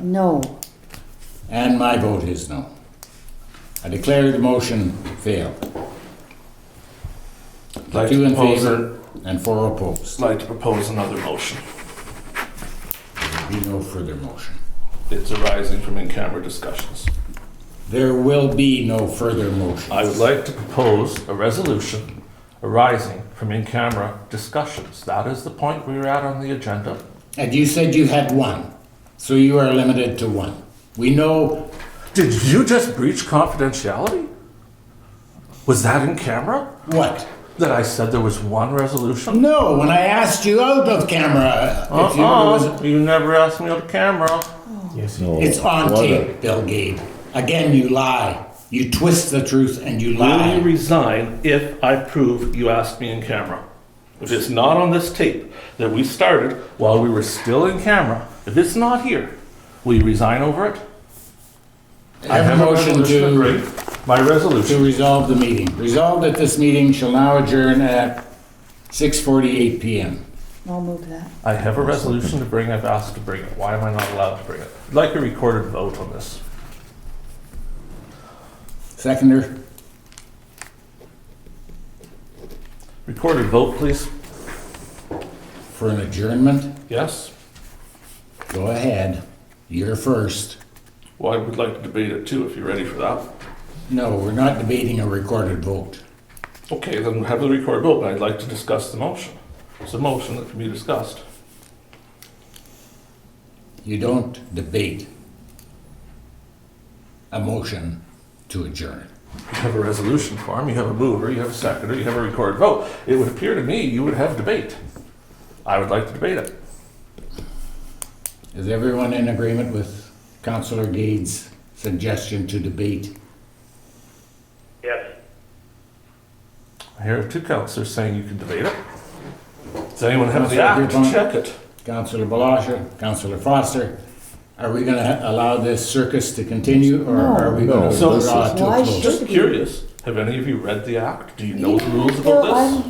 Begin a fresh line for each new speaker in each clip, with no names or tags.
No.
And my vote is no. I declare the motion failed.
Like
Two
to
in
propose
favor and four opposed.
I'd like to propose another motion.
There will be no further motion.
It's arising from in-camera discussions.
There will be no further motion.
I would like to propose a resolution arising from in-camera discussions. That is the point we were at on the agenda.
And you said you had one, so you are limited to one. We know
Did you just breach confidentiality? Was that in camera?
what?
That I said there was one resolution?
No, when I asked you out of camera, if you, it was-
Uh-uh, Oh, you never asked me on camera.
it's on tape, Bill Gabe. Again, you lie. You twist the truth and you
Will you
lie.
resign if I prove you asked me in camera? If it's not on this tape that we started while we were still in camera, if it's not here, will you resign over it?
I have a motion to,
My
to
resolution.
resolve the meeting. Resolved that this meeting shall now adjourn at 6:48 PM.
I'll move that.
I have a resolution to bring. I've asked to bring it. Why am I not allowed to bring it? I'd like a recorded vote on this.
Seconder,
Recorded vote, please.
for an adjournment,
Yes.
go ahead. You're first.
Well, I would like to debate it too if you're ready for that.
No, we're not debating a recorded vote.
Okay, then have the recorded vote, but I'd like to discuss the motion. It's a motion that can be discussed.
You don't debate a motion to adjourn.
You have a resolution form, you have a mover, you have a seconder, you have a recorded vote. It would appear to me you would have debate. I would like to debate it.
Is everyone in agreement with Councillor Gade's suggestion to debate?
Yes.
I hear two councillors saying you can debate it. Does anyone have the
Councillor
act to
Dupont.
check it?
Councillor Balasha, Councillor Foster, are we gonna allow this circus to continue, or are we gonna
No, no,
draw it to
why
a
should-
close?
Just curious, have any of you read the act? Do you know the rules about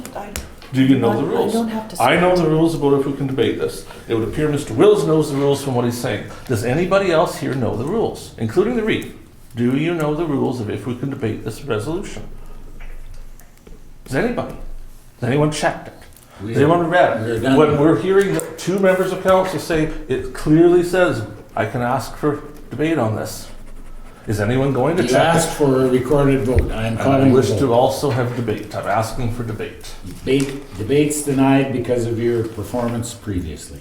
this?
I,
Do you know the
I- I
rules?
don't have to
I
say
know
it.
the rules about if we can debate this. It would appear Mr. Wills knows the rules from what he's saying. Does anybody else here know the rules, including the reef? Do you know the rules of if we can debate this resolution? Does anybody? Has anyone checked it?
We-
Has anyone read
we're
it?
done.
When we're hearing the two members of council say, it clearly says, I can ask for debate on this. Is anyone going to
You
check
asked
it?
for a recorded vote, I am
I
calling the
wish to
vote.
also have debate. I'm asking for debate.
Debate- Debate's denied because of your performance previously.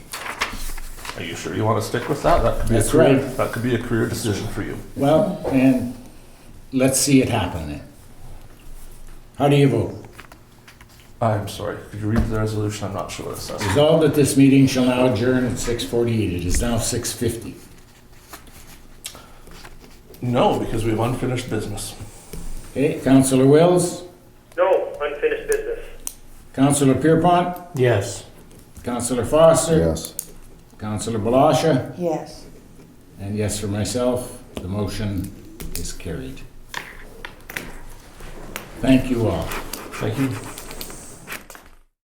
Are you sure you want to stick with that? That could be
That's
a career,
right.
That could be a career decision for you.
Well, and let's see it happen then. How do you vote?
I'm sorry. Could you read the resolution? I'm not sure what it says.
Resolved that this meeting shall now adjourn at six forty-eight. It is now six fifty.
No, because we have unfinished business.
Okay, Councillor Wills,
No, unfinished business.
Councillor Pierpont,
Yes.
Councillor Foster.
Yes.
Councillor Balasha,
Yes.
and yes for myself, the motion is carried. Thank you all.
Thank you.